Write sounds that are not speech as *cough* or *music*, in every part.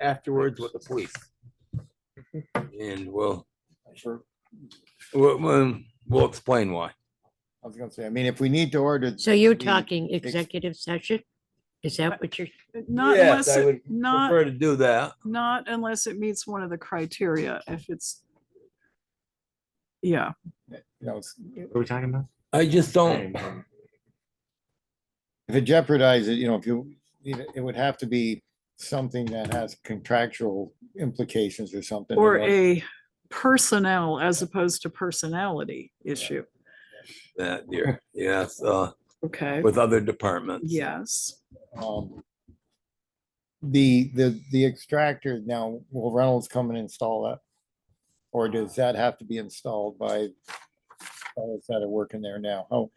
afterwards with the police. And we'll, we'll, we'll- we'll explain why. I was gonna say, I mean, if we need to order. So you're the- talking ex- executive session? Is that what you're, Not Yes, unless, I it would not, Prefer to do that. not unless it meets one of the criteria, if it's. Yeah, you know, it's- What are we talking about? I just don't, If it jeopardizes, you know, if you, it it would have to be something that has contractual implications or something. or otherwise- a personnel as opposed to personality issue, that, dear, yes, uh, okay? with other departments. Yes, um, The, the, the extractor now, will Reynolds come and install that? Or does that have to be installed by fellows that are working there now? How,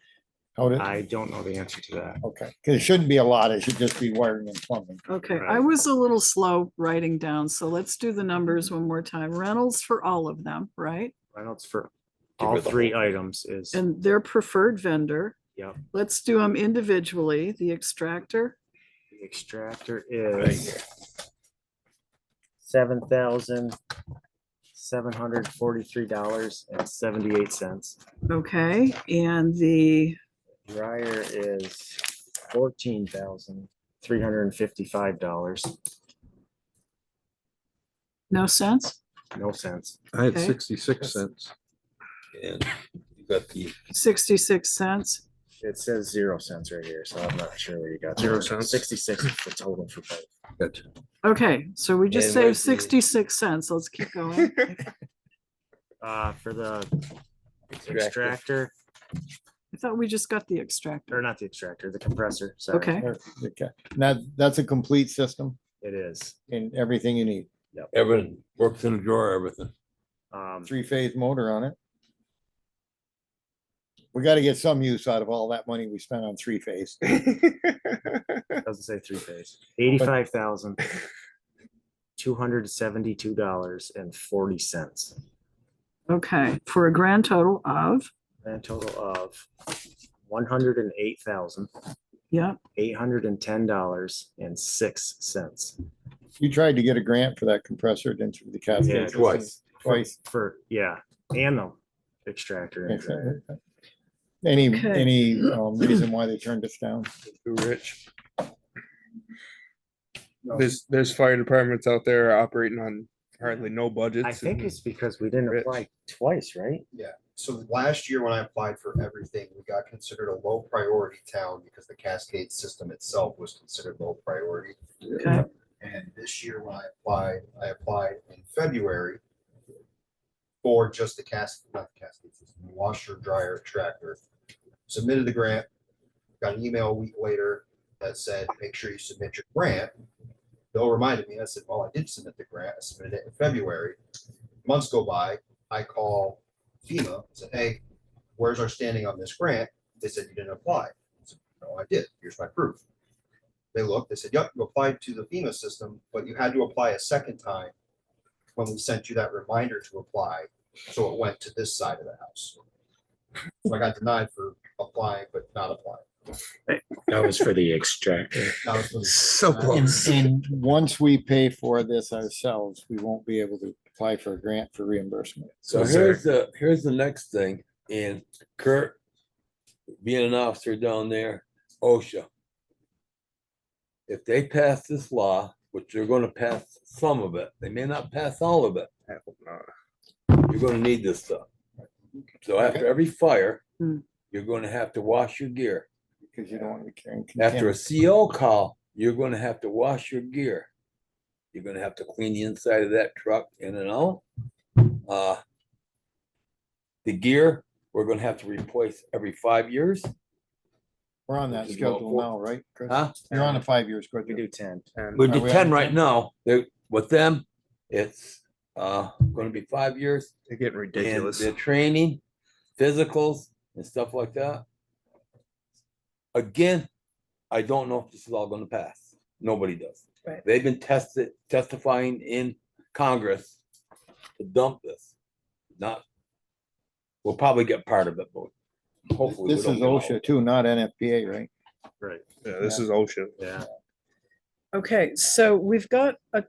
how did, I don't know the answer to that. okay, because it shouldn't be a lot, it should just be wiring and plumbing. okay, I Right. was a little slow writing down, so let's do the Mm-hmm. numbers one more time. Reynolds for all of them, right? Reynolds for Get all rid of the three whole- items is, And their preferred vendor. Yep. Let's do them individually, the extractor, the extractor is seven thousand seven hundred forty-three dollars and seventy-eight cents. okay, and the Dryer is fourteen thousand three hundred and fifty-five dollars. no sense? No cents. I had Okay. sixty-six cents. And you got the, 66 cents. It says zero cents right here, so I'm not sure where you got. Zero that. cents? Sixty-six is the total for both. Gotcha. Okay, so we just And saved where's the- 66 cents. *laughs* Let's keep going. Uh, for the Extractor. extractor, I thought we just got the or extractor. not the extractor, the compressor, sorry. Okay, Or- okay. Now, that's a complete system It is. and everything you need, everything, works in a drawer, everything. Um, three-phase motor on it. We gotta get some use out of all that money we spent on three-phase. doesn't say three phase. Eighty-five thousand two hundred seventy-two dollars and forty cents. okay, for a grand total of, Grand total of one hundred and eight thousand yeah, eight hundred and ten dollars and six cents. You tried to get a grant for that compressor, didn't you, the Yeah, cascade? twice. Twice. For, yeah, and the extractor. and dryer. Any, Okay. any um, reason why they turned us down? too rich. There's, there's fire departments out there operating on hardly no budgets. I think and- it's because we didn't Rich. apply twice, right? So last year when I applied for everything, we got considered a low priority town because the Cascade system itself was considered low priority. okay, And this year when I applied, I applied in February for just the Cas, not the Cascade system, the washer, dryer, tractor. Submitted the grant, got an email a week later that said, make sure you submit your grant. Bill reminded me, I said, well, I did submit the grant, I submitted it in February. Months go by, I call FEMA, said, hey, where's our standing on this grant? They said, you didn't apply. I said, No, I did, here's my proof. They looked, they said, yep, you applied to the FEMA system, but you had to apply a second time when we sent you that reminder to apply, so it went to this side of the house. So I got denied for applying, but not applying. That was for the extractor. That was the- So And, close. and once we pay for this ourselves, we won't be able to apply for a grant for reimbursement. So is there- here's the, here's the next thing, and Kurt, being an officer down there, OSHA. If they pass this law, which they're gonna pass some of it, they may not pass all of it, I hope not. you're gonna need this stuff. So after every fire, Hmm. you're gonna have to wash your gear. Because you don't want to be carrying. After a contaminants. CO call, you're gonna have to wash your gear. You're gonna have to clean the inside of that truck in and out. Uh, The gear, we're gonna have to replace every five years. We're on that Which is about schedule four- now, right? Chris? Huh? You're on a five-year We schedule. do ten. And We do Are we ten on- right now. They, with them, it's uh gonna be five years. they're getting and ridiculous. The training, physicals and stuff like that. Again, I don't know if this is all gonna pass. Nobody does. Right. They've been tested, testifying in Congress to dump this. Not, we'll probably get part of it, but hopefully. we This don't is get all of OSHA it. too, not NFPA, right? Right, Yeah, this is OSHA. yeah. okay, so we've got a